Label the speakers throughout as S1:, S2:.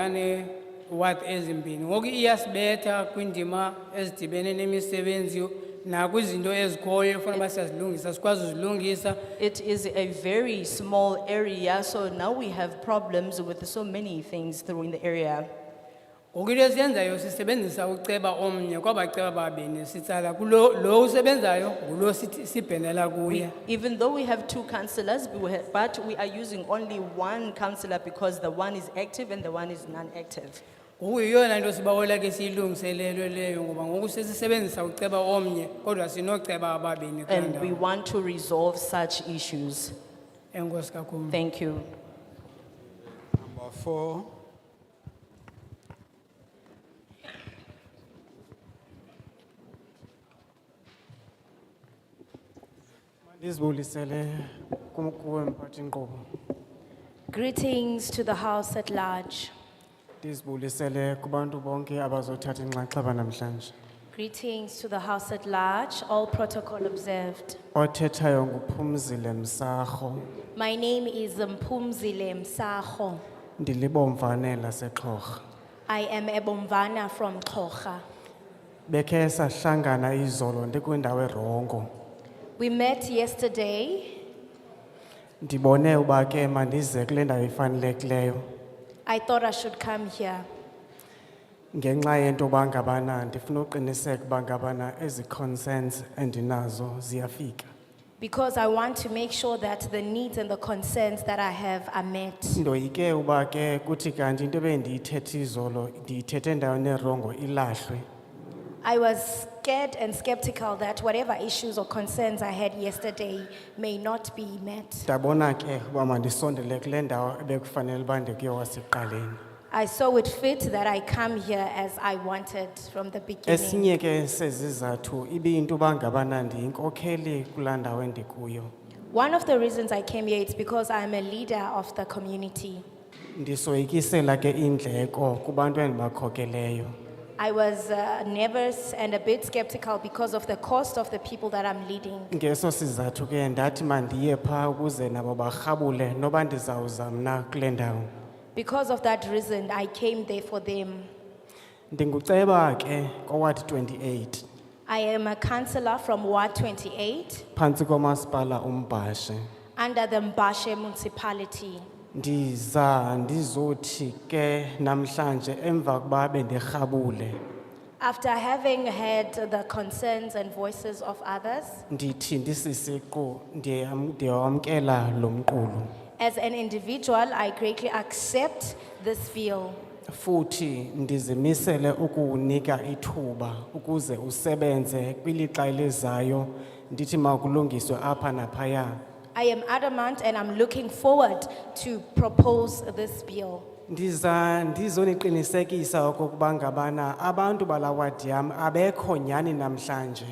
S1: ngane ward ezimbini ngoku iyasibetha kwindima ezidibene nemisebenzi nakwizinto ezikhoyo efuna uba siyazilungisa sikwazi uzilungisa
S2: It is a very small area, so now we have problems with so many things through in the area.
S1: ngoku into esiyenzayo sisebenzisa uceba omnye kwabaceba babini sitsala kulo lo usebenzayo ngulo sithi- sibhenela kuye
S2: Even though we have two councillors, but we ha- but we are using only one councillor because the one is active and the one is non-active.
S1: ngoku yiyona nto sibawola ke siyilungiselelwe leyo ngoba ngoku sesisebenzisa uceba omnye kodwa sinoceba ababini kuloo
S2: And we
S1: ndawo
S2: want to resolve such issues.
S1: enkosi kakhulu
S2: Thank you.
S3: Number four,
S4: Ndizibulisele kum- kuwe mphathi nkqubo.
S5: Greetings to the House at large.
S4: Ndizibulisele kubantu bonke abazothatha inxaxheba namhlanje.
S5: Greetings to the House at large, all protocol observed.
S4: Othethayo nguphumzile msarho
S5: My name is Mpumzile Msaho.
S4: ndilibomvane laseXhorha.
S5: I am a Bomvana from Kocha.
S4: Bekhe sahlangana izolo ndikwindawo erongo.
S5: We met yesterday.
S4: Ndibone uba ke mandize kule ndawo ifanelekileyo
S5: I thought I should come here
S4: ngenxa yento yoba ngabana ndifuna uqiniseka uba ngabana ezi concerns endinazo ziyafika.
S5: because I want to make sure that the needs and the concerns that I have are met.
S4: Ndoyike uba ke kuthi kanti into ebendiyithethe izolo ndiyithethe endaweni erongo ilahlwe.
S5: I was scared and skeptical that whatever issues or concerns I had yesterday may not be met.
S4: Ndabona ke uba mandisondele kule ndawo ebekufanele uba ndikuyo wasekuqaleni.
S5: I saw it fit that I come here as I wanted from the beginning.
S4: Esinye ke sezizathu ibiyinto uba ngabana ndiyinkokheli kulaa ndawo endikuyo.
S5: One of the reasons I came here is because I'm a leader of the community.
S4: Ndisoyikisela ke indleko kubantu endibakhokeleyo.
S5: I was uh, nervous and a bit skeptical because of the cost of the people that I'm leading.
S4: Ngeso sizathu ke ndathi mandiye phaa ukuze nabo barhabule noba ndizawuza mna kule ndawo.
S5: Because of that reason, I came there for them.
S4: Ndinguceba ke koward twenty-eight.
S5: I am a councillor from Ward 28
S4: phantsi komasipala umbhashe
S5: under the Mbashe municipality.
S4: ndiza ndizothi ke namhlanje emva kuba bendirhabule
S5: After having heard the concerns and voices of others,
S4: ndithi ndisisiqu ndiyam- ndiyawamkela lo mqulu
S5: as an individual, I greatly accept this view.
S4: futhi ndizimisele ukuwunika ithuba ukuze usebenze kwilixa elizayo ndithi makulungiswe apha naphaya
S5: I am adamant and I'm looking forward to propose this bill.
S4: ndiza ndizoniqinisekisa okokuba ngabana abantu balawadi yam abekho nyhani namhlanje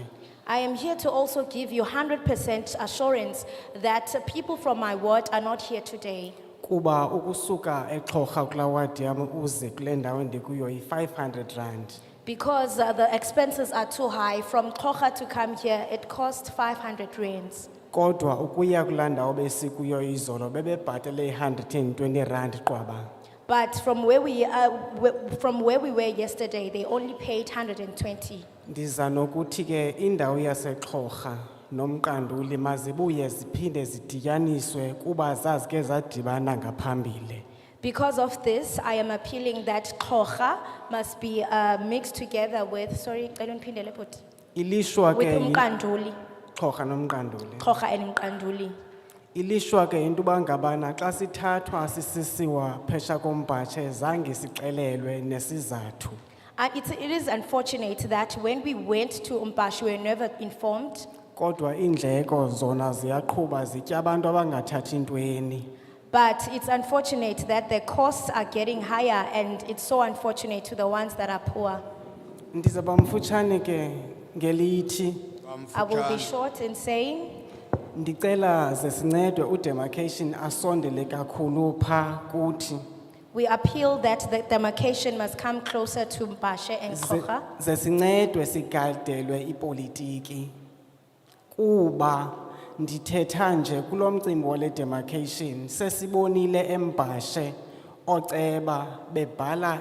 S5: I am here to also give you 100% assurance that people from my ward are not here today
S4: kuba ukusuka exhorha kulaa wadi yam uze kule ndawo ndikuyo yi-500 rand
S5: because uh, the expenses are too high. From Kocha to come here, it cost 500 rands.
S4: kodwa ukuya kulaa ndawo besikuyo izolo bebebhatele i-120 rand qwaba
S5: But from where we, uh, w- from where we were yesterday, they only paid 120.
S4: ndiza nokuthi ke indawo yasexhorha nomqanduli mazibuye ziphinde zidityaniswe kuba zazike zadibana ngaphambili
S5: Because of this, I am appealing that Kocha must be uh, mixed together with, sorry, I don't pin the
S4: ilishwa
S5: with
S4: ke
S5: Umkanduli,
S4: xhorha nomqanduli
S5: Kocha and Umkanduli.
S4: ilishwa ke into uba ngabana xa sithathwa sisisiwa phesha kombhatshe zange sixelelwe nesizathu
S5: Uh, it's, it is unfortunate that when we went to Umbash, we were never informed.
S4: Kodwa indleko zona ziyaqhuba zitya abantu abangathathi intweni.
S5: But it's unfortunate that the costs are getting higher, and it's so unfortunate to the ones that are poor.
S4: Ndizaba mfutshane ke ngelithi
S5: I will be
S3: Bamfutshane.
S5: short in saying
S4: ndicela ze sincedwe udemarcation asondele kakhulu pha kuthi.
S5: we appeal that the demarcation must come closer to Mbashe and
S4: Ze-
S5: Kocha.
S4: Ze sincedwe sigadelwe ipolitiki. Kuba ndithetha nje kulo mcimbi wale demarcation sesibonile embashe ooceba bebhala